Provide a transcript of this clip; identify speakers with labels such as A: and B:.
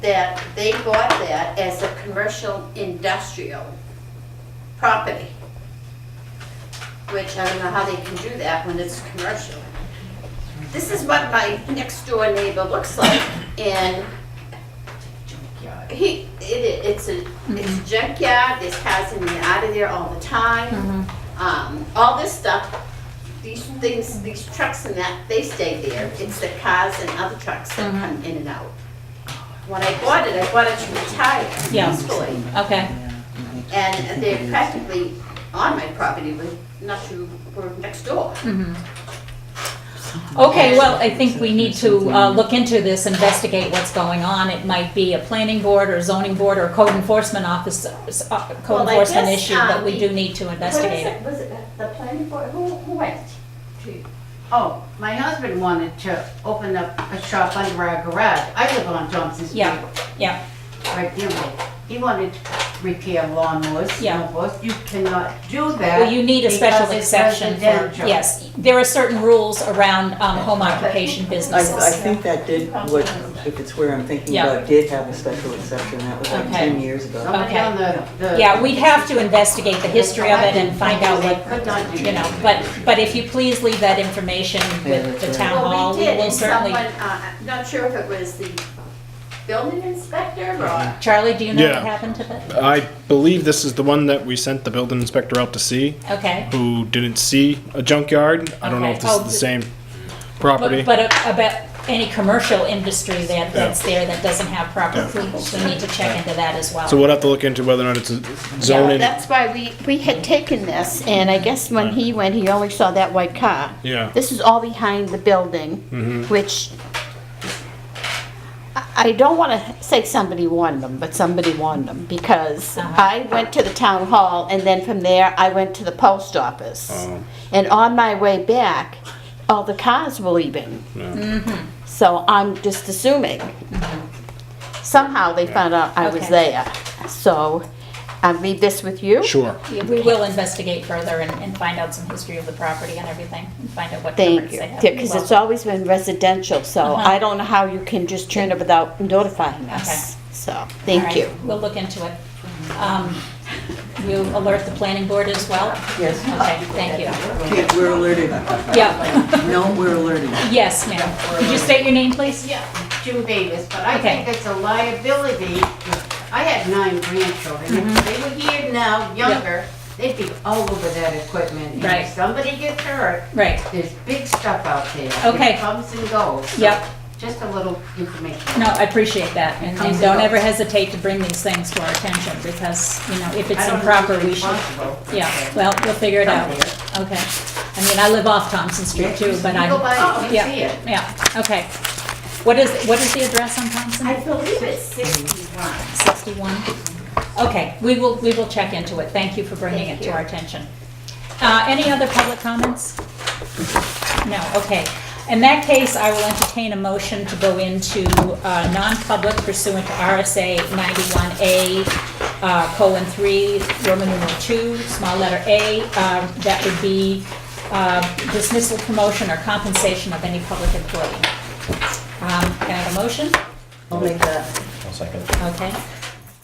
A: that they bought that as a commercial industrial property, which I don't know how they can do that when it's commercial. This is what my next door neighbor looks like, and he, it, it's a, it's a junkyard, there's cars in and out of there all the time. Um, all this stuff, these things, these trucks and that, they stay there. It's the cars and other trucks that come in and out. When I bought it, I bought it to retire
B: Yeah.
A: peacefully.
B: Okay.
A: And they're practically on my property, but not too, we're next door.
B: Okay, well, I think we need to uh, look into this, investigate what's going on. It might be a planning board or zoning board or code enforcement office, uh,
A: Well,
B: code
A: I
B: enforcement
A: guess,
B: issue, but
A: um,
B: we do need to investigate it.
A: Was it the planning board, who, who went to?
C: Oh, my husband wanted to open up a shop under our garage. I live on Johnson Street.
B: Yeah, yeah.
C: Right there. right. He wanted to repair lawnmowers,
B: Yeah.
C: snowboards. You cannot do that.
B: Well, you need a special
C: because it's
B: exception for,
C: residential.
B: yes. There are certain rules around um, home occupation
D: I, I
B: businesses.
D: think that did, what, if it's where I'm thinking
B: Yeah.
D: about, did have a special exception, that was like
B: Okay.
D: ten years ago.
C: Somebody
B: Okay.
C: on the, the.
B: Yeah, we'd have to investigate the history of it and find out
C: They
B: what,
C: Could not do
B: you know, but, but if you please leave that information with the
D: Yeah, that's
B: town
A: Well, we
B: hall, we
A: did,
B: will
A: and
B: certainly.
A: Someone, uh, I'm not sure if it was the building inspector or,
B: Charlie, do you know what
E: Yeah.
B: happened to that?
E: I believe this is the one that we sent the building inspector out to see,
B: Okay.
E: who didn't see a junkyard. I don't know if this is the same property.
B: Oh, But but about any commercial industry that, that's there that doesn't have proper cleats, we need to check into that as well.
E: So we'll have to look into whether or not it's a
A: Yeah,
E: zoning.
A: that's why we, we had taken this, and I guess when he went, he only saw that white car.
E: Yeah, Mm-hmm.
A: This is all behind the building, which, I- I don't want to say somebody warned them, but somebody warned them, because I went to the town hall, and then from there, I went to the post office.
E: Oh.
A: And on my way back, all the cars were leaving. So I'm just assuming. Somehow they found out I was
B: Okay.
A: there. So I leave this with you.
E: sure.
B: We will investigate further and, and find out some history of the property and everything, and find out what
A: Thank
B: coverage
A: you.
B: they have.
A: Because it's always been residential, so
B: Uh-huh.
A: I don't know how you can just turn it without notifying us. So, thank you.
B: We'll look into it. Um, you alert the planning board as well?
D: Yes.
B: Okay, thank you.
D: Okay, we're alerted.
B: Yeah,
D: No, we're alerted.
B: yes, ma'am. Could you state your name, please?
C: Yeah, Jim Davis, but I
B: Okay.
C: think it's a liability. I had nine grandchildren.
B: Mm-hmm.
C: If they were here now, younger, they'd be all over that equipment. And
B: Right.
C: If somebody gets hurt,
B: Right,
C: there's big stuff out there.
B: Okay.
C: It comes and goes. So
B: yep.
C: Just a little information.
B: No, I appreciate that, and and
C: Comes
B: don't
C: up.
B: ever hesitate to bring these things to our attention, because, you know, if it's
C: I don't know
B: improper, we
C: who's
B: should.
C: responsible.
B: Yeah, well, we'll figure it out. Okay. I mean, I live off Thompson Street too, but
C: You
B: I'm,
C: go by, you
B: Oh, yeah.
C: see it.
B: yeah, okay. What is, what is the address on Thompson?
A: believe it's 61.
B: 61? Okay, we will, we will check into it. Thank you for bringing it
A: Thank
B: to
A: you.
B: our attention. Uh, Any other public comments? No, okay. In that case, I will entertain a motion to go into uh, non-public pursuant to RSA 91A, uh, colon 3, Roman numeral 2, small letter A. um, That would be uh, dismissal, promotion, or compensation of any public employee. Um, Can I have a motion?
D: I'll make that.
B: Okay.